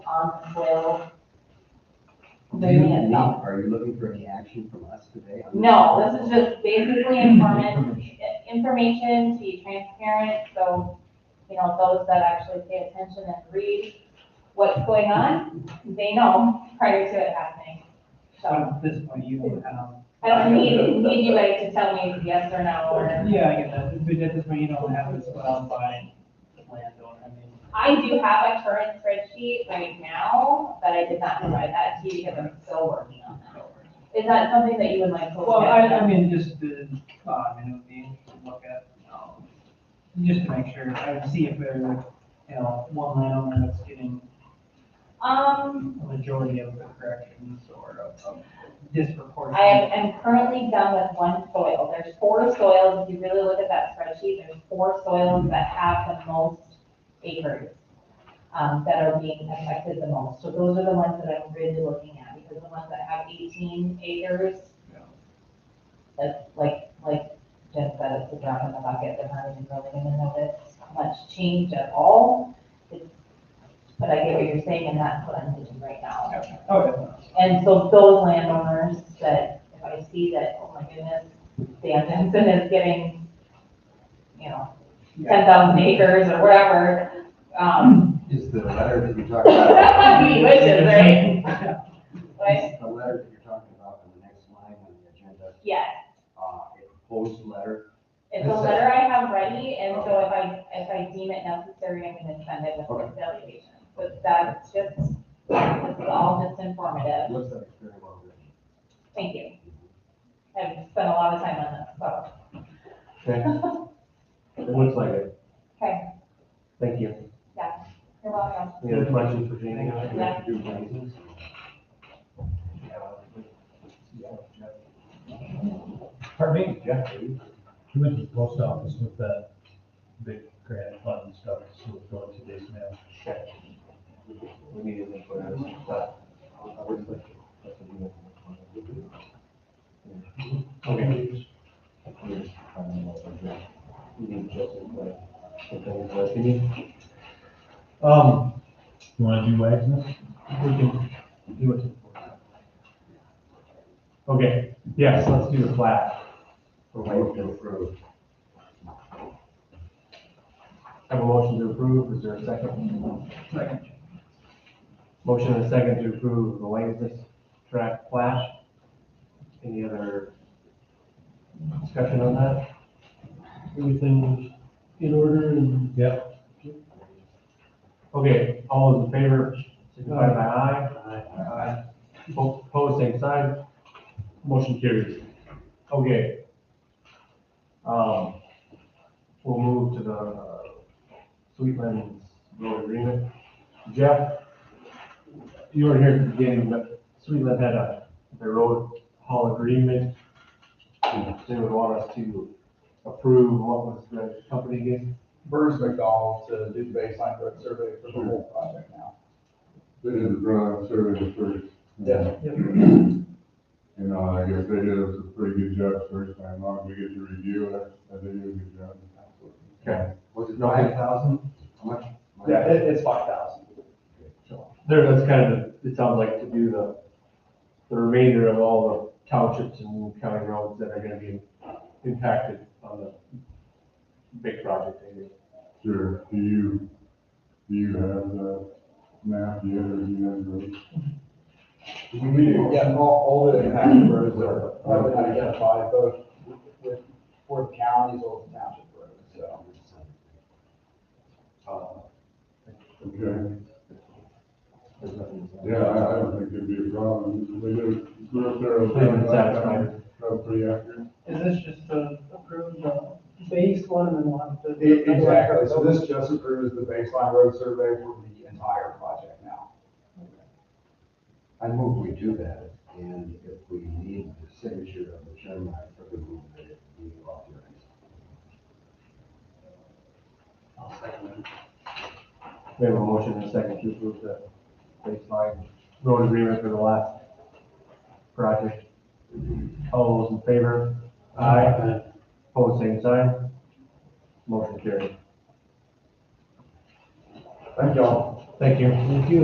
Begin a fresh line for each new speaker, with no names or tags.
on twelve.
Are you-
Moving it up.
Are you looking for any action from us today? on this?
No, this is just basically informant, information to be transparent, so, you know, those that actually pay attention and read what's going on, they know prior to it happening. So
At this point, you will have.
I don't need, need you guys to tell me yes or no, or,
Yeah, I get that, but at this point, you don't have this put out by the landowner, I mean.
I do have a current spreadsheet right now, but I did not provide that to you because I'm still working on that. Is that something that you would like to? look
Well, I,
at?
I mean, just the, uh, you know, being to look at, um, just to make sure, I see if there's, you know, one landowner that's getting
Um,
a majority of the corrections or of- of disproportionate.
I am- am currently done with one soil. There's four soils, if you really look at that spreadsheet, there's four soils that have the most acres um, that are being affected the most. So those are the ones that I'm really looking at, because the ones that have eighteen acres, that's like, like Jen said, it's a drop in the bucket, they're not even really gonna notice much change at all. It's- But I get what you're saying, and that's what I'm thinking right now.
Okay,
And so those landowners that, if I see that, oh my goodness, Dan Jensen is getting, you know,
yeah,
ten thousand acres or whatever, um,
Is the letter that you're talking about?
he wishes, right? But,
Is The letter that you're talking about in the next line on the agenda,
yes,
uh, a proposed letter,
it's a letter I have ready, and so if I, if I deem it necessary, I'm gonna send it with a delegation. But that's just, this is all just informative,
looks like it's very well written.
thank you. I've spent a lot of time on this, so,
It looks like it.
okay,
Thank you.
you're welcome.
Any other questions for Jamie?
Yeah.
Do things.
Pardon me,
Jeff, are you-
he went to the post office with that big grant fund and stuff, so it's going to this mail.
We need to put out some stuff. Okay. We need to just, like, put that in the opinion. Um,
You wanna do wags now?
we can do it. Okay, yes, let's do the plat. For
Move to
Wakefield.
approve.
Have a motion to approve, is there a second?
second,
Motion and a second to approve the Langley track flash. Any other discussion on that?
everything was in order and
Yep.
Okay, all those in favor, signify by aye.
Aye.
Po- Opposed, same sign. Motion carries. Okay. Um, we'll move to the uh, Sweetlands Road Agreement. Jeff, you were here at the beginning, but Sweetland had a, the road haul agreement. They would want us to approve what was the company again?
Burns McDonald to do the baseline road survey for the whole project now.
They did the ground survey first.
Yeah.
You know, I guess they did us a pretty good job first time out. We get to review it. I think they did a good job.
Okay.
Was it nine thousand? How much?
Yeah, it, it's five thousand.
There, that's kind of, the- it sounds like to do the, the remainder of all the townships and county roads that are gonna be impacted on the big project. I guess.
Sure. Do you, do you have the map yet or do you have the?
Yeah, all, all the impacted roads are, are identified both with, for the county as well as the township roads, so.
Uh,
Okay,
There's nothing to say.
yeah, I, I don't think it'd be a problem. They did, we're up there.
They did satisfy.
That was pretty accurate.
is this just to approve the base one and then one? to-
E- Exactly, so this just approves the baseline road survey for the entire project now.
I move we do that, and if we need the signature of the chairman, I probably move that it be authorized.
We have a motion and a second to approve the baseline road agreement for the last project. All those in favor? Aye. Opposed, same sign. Motion carried.
Thank y'all.
Thank you.